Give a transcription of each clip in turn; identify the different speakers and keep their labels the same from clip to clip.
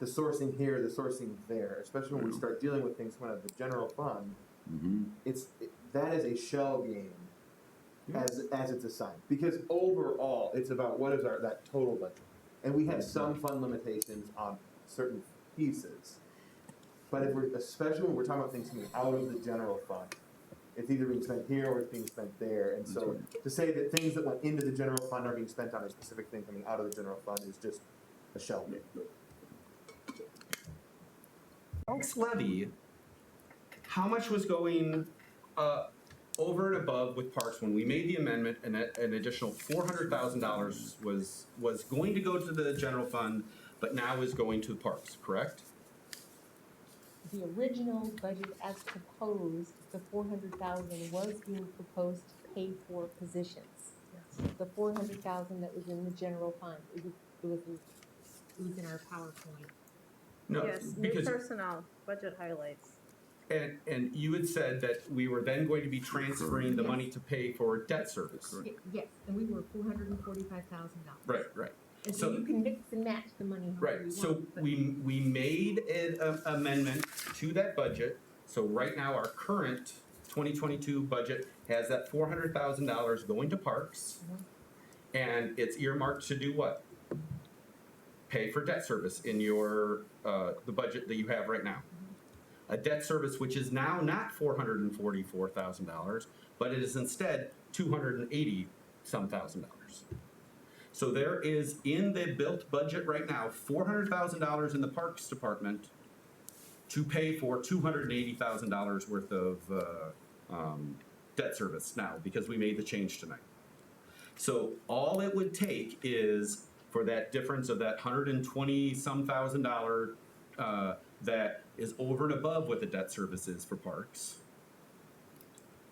Speaker 1: the sourcing here, the sourcing there, especially when we start dealing with things coming out of the general fund,
Speaker 2: Mm-hmm.
Speaker 1: it's, it- that is a shell game as, as it's assigned. Because overall, it's about what is our, that total budget. And we have some fund limitations on certain pieces. But if we're, especially when we're talking about things coming out of the general fund, it's either being spent here or it's being spent there. And so to say that things that went into the general fund are being spent on a specific thing coming out of the general fund is just a shell game.
Speaker 3: tax levy, how much was going uh, over and above with parks when we made the amendment? And a- an additional four hundred thousand dollars was was going to go to the general fund, but now is going to parks. Correct?
Speaker 4: The original budget as proposed, the four hundred thousand was being proposed to pay for positions. The four hundred thousand that was in the general fund, it was, it was, it was in our PowerPoint.
Speaker 3: No,
Speaker 5: Yes, new
Speaker 3: because
Speaker 5: personnel, budget highlights.
Speaker 3: and and you had said that we were then going to be transferring the
Speaker 4: Yes.
Speaker 3: money to pay for debt service.
Speaker 4: Ye- Yes, and we were four hundred and forty-five thousand dollars.
Speaker 3: Right, right.
Speaker 4: And so
Speaker 3: so-
Speaker 4: you can mix and match the money however
Speaker 3: Right,
Speaker 4: you
Speaker 3: so
Speaker 4: want, but
Speaker 3: we, we made an a- amendment to that budget, so right now our current twenty twenty-two budget has that four hundred thousand dollars going to parks. And it's earmarked to do what? Pay for debt service in your, uh, the budget that you have right now. A debt service which is now not four hundred and forty-four thousand dollars, but it is instead two hundred and eighty some thousand dollars. So there is in the built budget right now, four hundred thousand dollars in the Parks Department to pay for two hundred and eighty thousand dollars worth of, uh, um, debt service now, because we made the change tonight. So all it would take is for that difference of that hundred and twenty some thousand dollar, uh, that is over and above what the debt service is for parks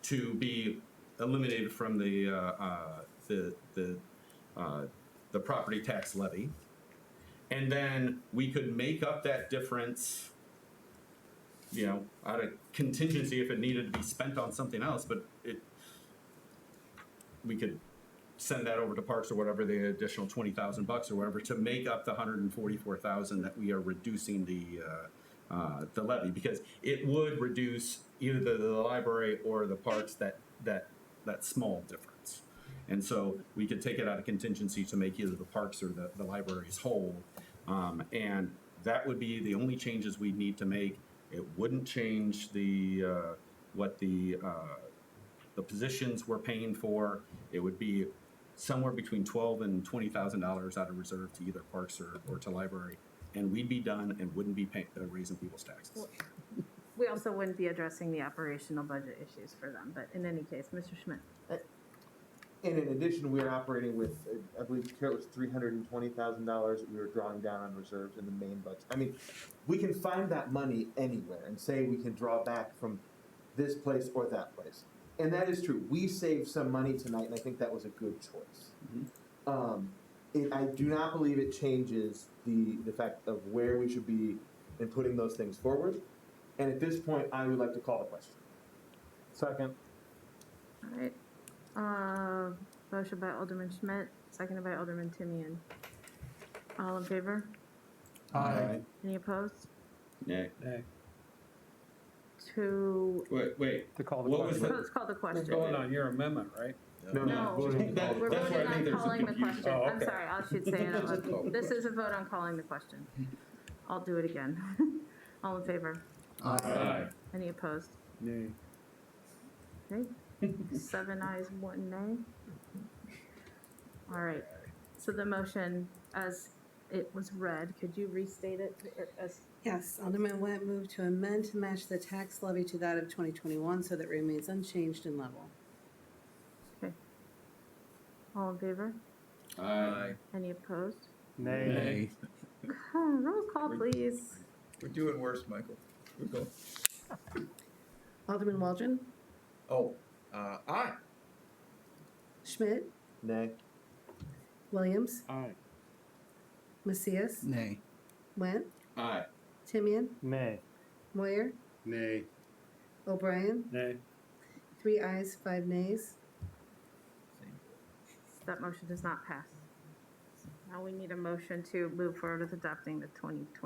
Speaker 3: to be eliminated from the, uh, uh, the, the, uh, the property tax levy. And then we could make up that difference, you know, out of contingency if it needed to be spent on something else, but it, we could send that over to parks or whatever, the additional twenty thousand bucks or whatever, to make up the hundred and forty-four thousand that we are reducing the, uh, uh, the levy, because it would reduce either the, the library or the parks that, that, that small difference. And so we could take it out of contingency to make either the parks or the, the libraries whole. Um, and that would be the only changes we'd need to make. It wouldn't change the, uh, what the, uh, the positions we're paying for. It would be somewhere between twelve and twenty thousand dollars out of reserve to either parks or, or to library. And we'd be done and wouldn't be paying, uh, raising people's taxes.
Speaker 5: We also wouldn't be addressing the operational budget issues for them, but in any case, Mr. Schmidt.
Speaker 1: And in addition, we are operating with, uh, I believe, Carrot was three hundred and twenty thousand dollars that we were drawing down on reserves in the main budget. I mean, we can find that money anywhere and say we can draw back from this place or that place. And that is true. We saved some money tonight, and I think that was a good choice. Um, it, I do not believe it changes the, the fact of where we should be in putting those things forward. And at this point, I would like to call the question. Second.
Speaker 5: All right. Uh, motion by Alderman Schmidt, seconded by Alderman Timian. All in favor?
Speaker 3: Aye.
Speaker 5: Any opposed?
Speaker 3: Nay.
Speaker 5: To,
Speaker 3: Wait, wait.
Speaker 6: To call the
Speaker 3: What was
Speaker 6: question.
Speaker 3: the?
Speaker 5: let's call the
Speaker 6: It's
Speaker 5: question.
Speaker 6: going on your amendment, right?
Speaker 1: No,
Speaker 5: No.
Speaker 1: no, voting.
Speaker 3: That-
Speaker 5: We're
Speaker 3: that's where
Speaker 5: voting
Speaker 3: I think
Speaker 5: on
Speaker 3: there's some
Speaker 5: calling the
Speaker 3: confusion.
Speaker 5: question.
Speaker 6: Oh,
Speaker 5: I'm
Speaker 6: okay.
Speaker 5: sorry, I should say it out loud. This is a vote on calling the question. I'll do it again. All in favor?
Speaker 6: Aye.
Speaker 5: Any opposed?
Speaker 6: Nay.
Speaker 5: Okay, seven ayes, one nay. All right, so the motion as it was read, could you restate it or as,
Speaker 7: Yes, Alderman Went moved to amend to match the tax levy to that of twenty twenty-one so that it remains unchanged in level.
Speaker 5: all in favor?
Speaker 2: Aye.
Speaker 5: Any opposed?
Speaker 6: Nay.
Speaker 5: Oh, Roll call, please.
Speaker 8: We're doing worse, Michael. We're going,
Speaker 7: Alderman Waldron,
Speaker 8: oh, uh, aye.
Speaker 7: Schmidt,
Speaker 1: Nay.
Speaker 7: Williams,
Speaker 6: Aye.
Speaker 7: Macias. Nay. Went,
Speaker 3: Aye.
Speaker 7: Timian,
Speaker 6: Nay.
Speaker 7: Moyer,
Speaker 6: Nay.
Speaker 7: O'Brien,
Speaker 6: Nay.
Speaker 7: three ayes, five nays.
Speaker 5: That motion does not pass. Now we need a motion to move forward with adopting the twenty twenty